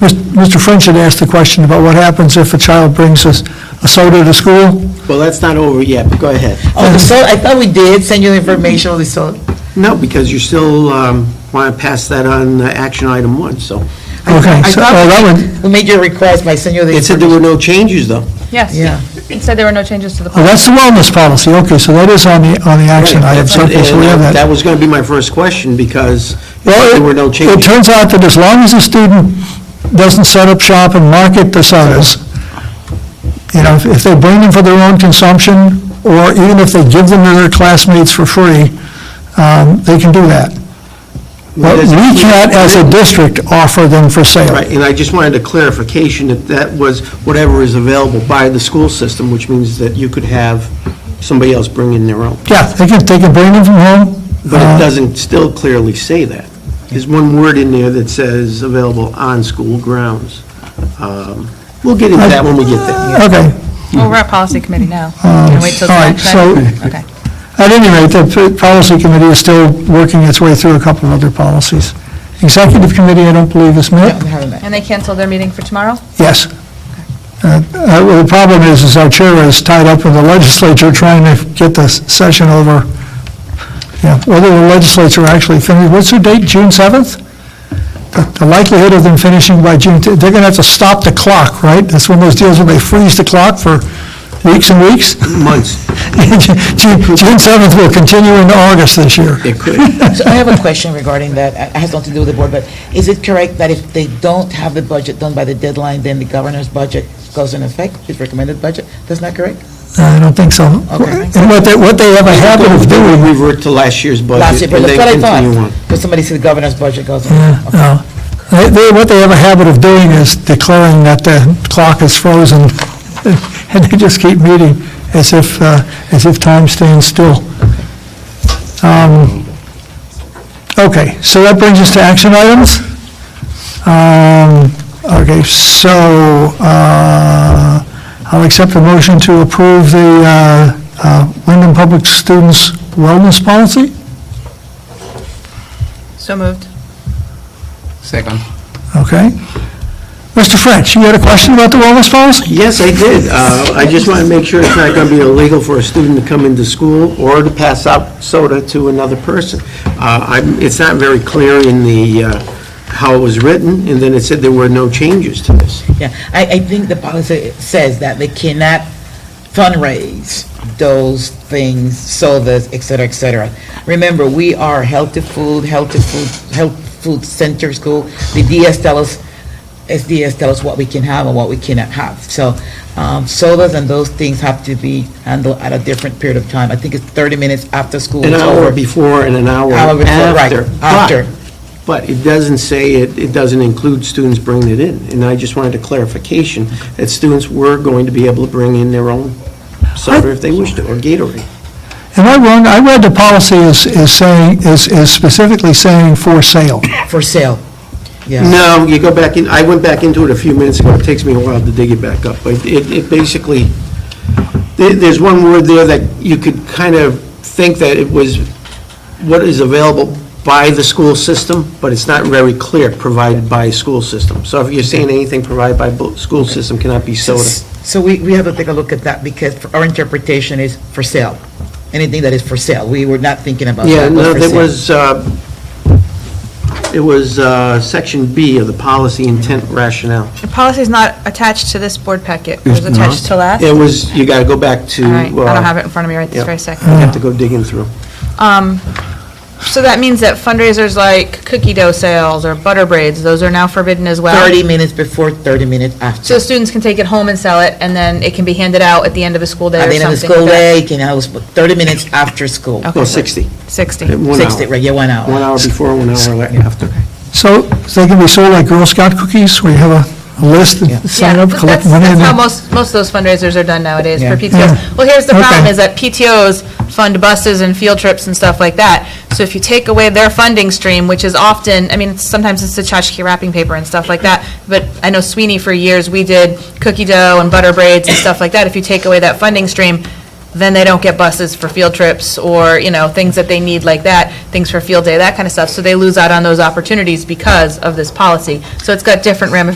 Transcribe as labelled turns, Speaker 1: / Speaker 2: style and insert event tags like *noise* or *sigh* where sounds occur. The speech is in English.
Speaker 1: Mr. French had asked the question about what happens if a child brings a a soda to school.
Speaker 2: Well, that's not over yet, but go ahead.
Speaker 3: Oh, the sol, I thought we did send you the information on the sol.
Speaker 2: No, because you still want to pass that on uh, action item one, so.
Speaker 1: Okay,
Speaker 3: I
Speaker 1: so
Speaker 3: thought
Speaker 1: oh, that one,
Speaker 3: We made your request, but I sent you the.
Speaker 2: It said there were no changes, though.
Speaker 4: Yes.
Speaker 3: Yeah.
Speaker 4: It said there were no changes to the
Speaker 1: oh,
Speaker 4: policy.
Speaker 1: that's the wellness policy, okay, so that is on the, on the action item, so okay, so we have that.
Speaker 2: That was going to be my first question, because
Speaker 1: Well,
Speaker 2: there were no
Speaker 1: it- It
Speaker 2: changes.
Speaker 1: turns out that as long as the student doesn't set up shop and market the sodas, you know, if- if they bring them for their own consumption, or even if they give them to their classmates for free, um, they can do that. But we can't, as a district, offer them for sale.
Speaker 2: Right, and I just wanted a clarification that that was whatever is available by the school system, which means that you could have somebody else bring in their own.
Speaker 1: Yeah, they can, they can bring them from home.
Speaker 2: But
Speaker 1: uh,
Speaker 2: it doesn't still clearly say that. There's one word in there that says available on school grounds. Um, We'll get into that when we get there.
Speaker 3: Uh,
Speaker 1: Okay.
Speaker 4: Well, oh, we're at policy committee now. Can we wait till the
Speaker 1: all right,
Speaker 4: next item? Okay.
Speaker 1: At any rate, the p- policy committee is still working its way through a couple of other policies. Executive committee, I don't believe is
Speaker 3: No,
Speaker 1: met.
Speaker 3: we haven't met.
Speaker 4: And they canceled their meeting for tomorrow?
Speaker 1: Yes. Uh, uh, well, The problem is, is our chair is tied up with the *laughs* legislature trying to get the s- session over. Yeah, whether the legislature actually finishes, what's their date, June 7th? The- The likelihood of them finishing by June, t- they're going to have to stop the clock, right? That's one of those deals where they freeze the clock for weeks and weeks.
Speaker 2: Months,
Speaker 1: June *laughs* June 7th will continue into August this year.
Speaker 2: it could.
Speaker 3: So I have a question regarding that. It has nothing to do with the board, but is it correct that if they don't have the budget done by the deadline, then the governor's budget goes in effect, his recommended budget? That's not correct?
Speaker 1: Uh, I don't think so.
Speaker 3: Okay.
Speaker 1: And what they, what they have a habit of
Speaker 2: They
Speaker 1: doing
Speaker 2: would revert to last year's budget,
Speaker 3: Last year, but
Speaker 2: and then
Speaker 3: that's what I
Speaker 2: continue on.
Speaker 3: thought. But somebody said the governor's budget goes in.
Speaker 1: Yeah,
Speaker 3: Okay.
Speaker 1: no. They- they- What they have a habit of doing is declaring that the clock is frozen, *laughs* and they just keep meeting as if, uh, as if time stands still. Um, Okay, so that brings us to action items. Um, Okay, so uh, I'll accept a motion to approve the uh, uh, Wyndham Public Students Wellness Policy.
Speaker 4: So moved.
Speaker 5: Second.
Speaker 1: Okay. Mr. French, you had a question about the wellness policy?
Speaker 2: Yes, I did. Uh, I just want to make sure it's not going to be illegal for a student to come into school or to pass out soda to another person. Uh, I'm- It's not very clear in the, uh, how it was written, and then it said there were no changes to this.
Speaker 3: Yeah, I, I think the policy says that they cannot fundraise those things, sodas, et cetera, et cetera. Remember, we are healthy food, healthy food, health food center school. The DS tell us, SDS tell us what we can have and what we cannot have. So, um, sodas and those things have to be handled at a different period of time. I think it's thirty minutes after school.
Speaker 2: An
Speaker 3: is
Speaker 2: hour
Speaker 3: over.
Speaker 2: before and an hour
Speaker 3: Hour before, right,
Speaker 2: after. But-
Speaker 3: after.
Speaker 2: But it doesn't say, it It doesn't include students bringing it in. And I just wanted a clarification that students were going to be able to bring in their own soda if they wished to, or Gatorade.
Speaker 1: Am I wrong? I read the policy is, is saying, is, is specifically saying for sale.
Speaker 3: For sale, yeah.
Speaker 2: No, you go back in, I went back into it a few minutes ago, it takes me a while to dig it back up, but it, it basically, there, there's one word there that you could kind of think that it was what is available by the school system, but it's not very clear, provided by school system. So if you're saying anything provided by bo- school system cannot be soda.
Speaker 3: So we, we have to take a look at that because our interpretation is for sale. Anything that is for sale. We were not thinking about
Speaker 2: Yeah,
Speaker 3: that. but
Speaker 2: no,
Speaker 3: for
Speaker 2: there
Speaker 3: sale.
Speaker 2: was, uh, it was uh, section B of the policy intent rationale.
Speaker 4: The policy is not attached to this board packet. It was attached to last.
Speaker 2: It was, you got to go back to.
Speaker 4: All right, I
Speaker 2: uh,
Speaker 4: don't have it in front of me right this
Speaker 2: yeah. Mm.
Speaker 4: very
Speaker 2: You
Speaker 4: second.
Speaker 2: have to go digging through.
Speaker 4: Um, so that means that fundraisers like cookie dough sales or butter braids, those are now forbidden as well?
Speaker 3: 30 minutes before, 30 minutes
Speaker 4: So
Speaker 3: after.
Speaker 4: students can take it home and sell it, and then it can be handed out at the end of a school day
Speaker 3: At
Speaker 4: or
Speaker 3: the end of the
Speaker 4: something like
Speaker 3: school
Speaker 4: that?
Speaker 3: day, you can have, us- 30 minutes after school.
Speaker 4: Okay.
Speaker 2: No, 60.
Speaker 4: Oh, Sixty.
Speaker 2: One hour.
Speaker 3: 60, right, yeah, one hour.
Speaker 2: One hour before, one hour after.
Speaker 1: So they can be sold like Girl Scout cookies, where you have a- a list
Speaker 3: Yeah.
Speaker 1: and *laughs* sign
Speaker 4: Yeah,
Speaker 1: up,
Speaker 4: th-
Speaker 1: collect
Speaker 4: that's-
Speaker 1: money. and
Speaker 4: That's
Speaker 1: then-
Speaker 4: how most, most of those fundraisers are done nowadays for
Speaker 3: Yeah.
Speaker 1: Yeah.
Speaker 4: PTOs. Well, here's the problem,
Speaker 1: Okay.
Speaker 4: is that PTOs fund buses and field trips and stuff like that. So if you take away their funding stream, which is often, I mean, it's- sometimes it's the tchotchke wrapping paper and stuff like that, but I know Sweeney for years, we did cookie dough and butter braids and stuff like that. If you take away that funding stream, then they don't get buses for field trips or, you know, things that they need like that, things for field day, that kind of stuff. So they lose out on those opportunities because of this policy. So it's got different ramifications